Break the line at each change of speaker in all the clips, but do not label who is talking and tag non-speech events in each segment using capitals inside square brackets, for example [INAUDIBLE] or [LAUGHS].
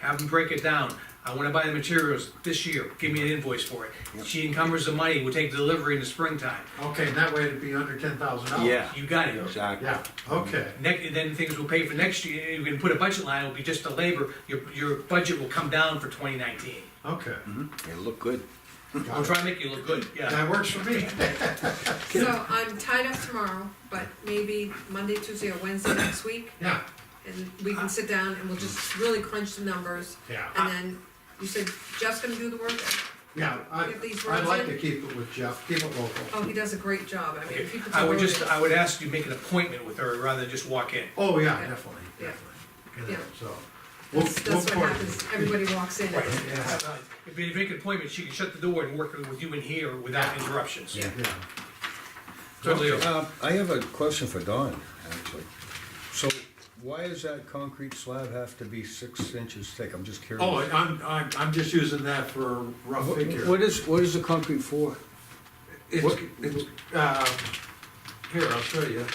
have them break it down. I wanna buy the materials this year, give me an invoice for it. She encumbers the money, we'll take delivery in the springtime.
Okay, and that way it'd be under ten thousand dollars.
Yeah,
You got it.
exactly.
Yeah, okay,
Next, then things will pay for next year, you can put a budget line, it'll be just the labor, your, your budget will come down for twenty nineteen.
okay.
It looked good.
I'll try to make you look good, yeah.
That works for me.
So I'm tied up tomorrow, but maybe Monday, Tuesday, or Wednesday next week,
Yeah,
and we can sit down and we'll just really crunch the numbers.
Yeah.
And then, you said Jeff's gonna do the work?
yeah, I,
Get these
I'd
roads
like
in.
to keep it with Jeff, keep it local.
Oh, he does a great job, I mean, if he puts
I
a
would
road
just,
in-
I would ask you to make an appointment with her rather than just walk in.
Oh, yeah,
Yeah.
definitely,
Yeah.
definitely, you know,
Yeah.
so. we'll-
That's, that's
we'll
what happens,
coordinate.
everybody walks in.
Right.
Yeah,
If you make an appointment, she can shut the door and work with you in here without interruptions.
Yeah.
yeah.
Totally, okay.
Uh, I have a question for Don, actually. So why does that concrete slab have to be six inches thick? I'm just curious.
Oh, I'm, I'm, I'm just using that for a rough figure.
What is, what is the concrete for?
It's,
what-
it's, um, here, I'll show you.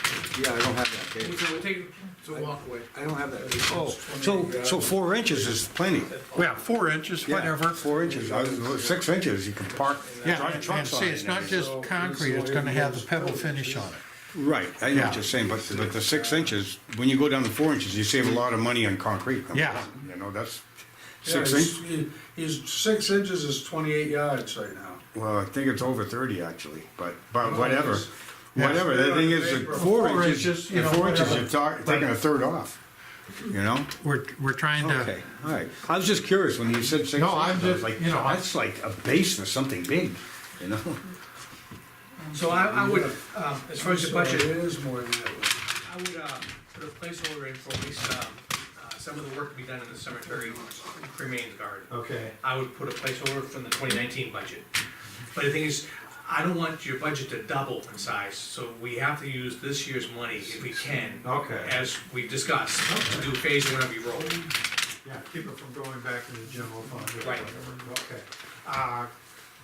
Yeah, I don't have that
So
tape.
we'll take-
It's a walkway.
I don't have that. Oh, so, so four inches is plenty.
Yeah, four inches,
Yeah,
whatever.
Four inches, I was- six inches, you can park.
Yeah,
drive
and and
trucks on
see,
it
it's
and
not
everything.
just concrete, it's gonna have the pebble finish on it.
Right, I know
Yeah.
what you're saying, but, but the six inches, when you go down to four inches, you save a lot of money on concrete.
Yeah.
You know, that's
Yeah,
six
he's-
inches.
he- He's, six inches is twenty-eight yards right now.
Well, I think it's over thirty actually, but, but whatever,
Yeah.
whatever, the thing is, that four
Four
inches,
inches, you
yeah,
know,
four inches,
whatever.
you're talk- taking a third off, you know?
We're, we're trying to,
Okay, all right, I was just curious when you said six inches,
No, I'm
I was
just-
like,
you know, I-
that's like a base for something big, you know? [LAUGHS]
So I, I would, um, as far as the budget,
So It is more than that.
I would, uh, put a placeholder in for at least, um, uh, some of the work to be done in the cemetery remains guard.
Okay.
I would put a placeholder from the twenty nineteen budget. But the thing is, I don't want your budget to double in size, so we have to use this year's money if we can.
Okay.
As we discussed, to do phase one of your roll.
Yeah, keep it from going back into the general fund or
Right.
whatever, okay. Uh,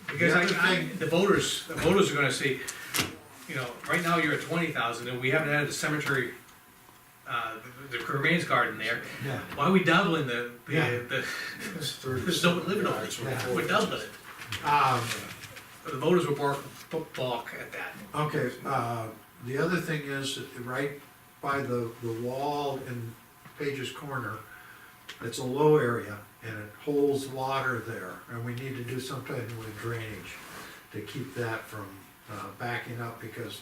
Because
The other
I, I,
thing-
the voters, the voters are gonna say, you know, right now you're at twenty thousand, and we haven't added the cemetery, uh, the the remains garden there.
Yeah.
Why are we doubling the,
Yeah.
the, [LAUGHS]
It's
the,
30
there's no one living on it,
Yeah.
we're doubling it.
um,
The voters will bark, balk at that.
Okay, uh, the other thing is, that right by the, the wall in Page's Corner, it's a low area and it holds water there, and we need to do something with drainage to keep that from, uh, backing up, because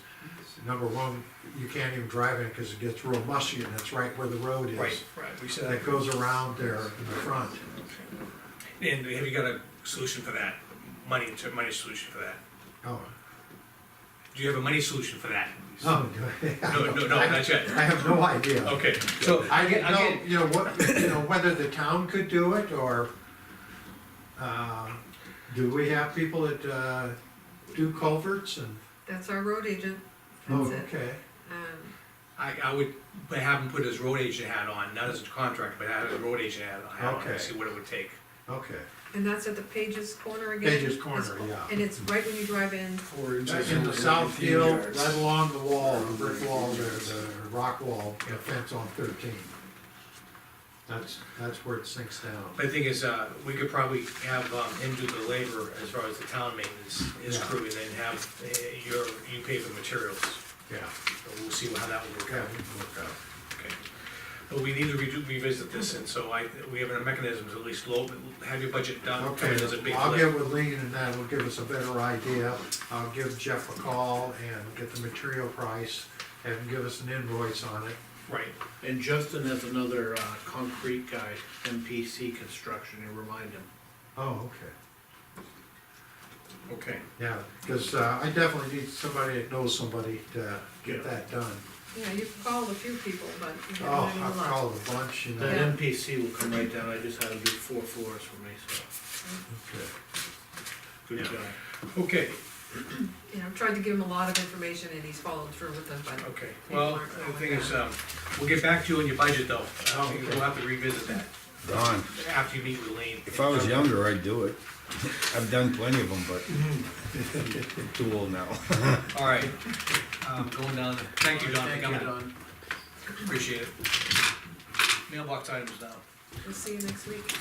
number one, you can't even drive in it because it gets real mushy and it's right where the road is.
right, we
That goes around there in the front.
And have you got a solution for that? Money, to- money solution for that?
Oh,
Do you have a money solution for that?
oh,
[LAUGHS] No, no, no, not yet.
I have no idea.
Okay, so,
I get,
I
no,
get-
you know, what, you know, whether the town could do it, or, uh, do we have people that, uh, do culverts and?
That's our road agent,
Oh,
that's it.
Okay,
Um,
I, I would have him put his road agent hat on, not as a contractor, but have his road agent hat hat on,
Okay.
and see what it would take.
okay.
And that's at the Pages Corner again?
Page's Corner,
It's-
yeah.
And it's right when you drive in,
Four inches.
In the
is
south
19
field,
yards.
right along the wall, the brick wall there, the rock wall, the fence on thirteen. That's, that's where it sinks down.
But the thing is, uh, we could probably have, um, him do the labor as far as the town maintenance, his
Yeah.
crew, and then have, uh, your, you pay for materials.
Yeah,
So We'll see how that would work
okay,
out.
we can work out.
Okay, But we need to redo, revisit this, and so I, we have a mechanism to at least low, have your budget done, come in as a
Okay,
big
I'll
lift.
get with Lean and that'll give us a better idea. I'll give Jeff a call and get the material price and give us an invoice on it.
Right,
And Justin has another uh, concrete guy, MPC Construction, you remind him.
Oh, okay.
okay.
Yeah, because I definitely need somebody that knows somebody to
Yeah.
get that done.
yeah, you've called a few people, but you
Oh,
haven't had
I've
a lot.
called a bunch, you know.
Yeah.
That MPC will come right down, I just had him do four floors for me, so,
Okay.
good
Yeah.
guy.
Okay,
You know, I've tried to give him a lot of information and he's followed through with them, but
okay, well, the thing is, um, we'll get back to you on your budget though, I think we'll have to revisit that
Don,
after you meet with Lean.
if I was younger, I'd do it. [LAUGHS] I've done plenty of them, but
Mm-hmm.
I'm too old now.
All right, um, going down, the- thank you, Don, for
Thank you,
coming,
Don.
appreciate it. Mailbox items now.
we'll see you next week.